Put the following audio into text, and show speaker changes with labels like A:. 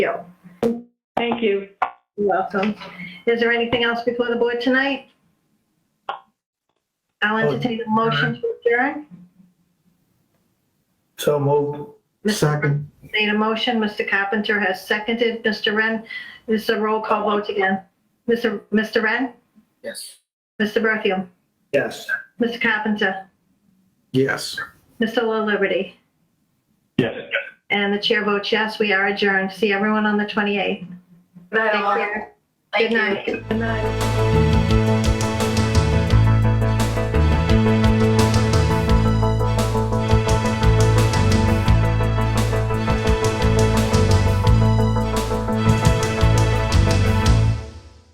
A: you.
B: Thank you.
A: You're welcome. Is there anything else before the board tonight? I'll entertain a motion to adjourn.
C: So moved.
A: Mr.
C: Second.
A: Made a motion, Mr. Carpenter has seconded, Mr. Ren, this is a roll call vote again. Mr. Mr. Ren,
D: Yes.
A: Mr. Berthium,
C: Yes.
A: Mr. Carpenter,
C: Yes.
A: Mr. La Liberty,
E: Yes.
A: and the chair votes yes, we are adjourned. See everyone on the 28th.
F: Good night,
A: Take
F: all.
A: care.
F: Thank
A: Good
F: you.
A: night. Good night.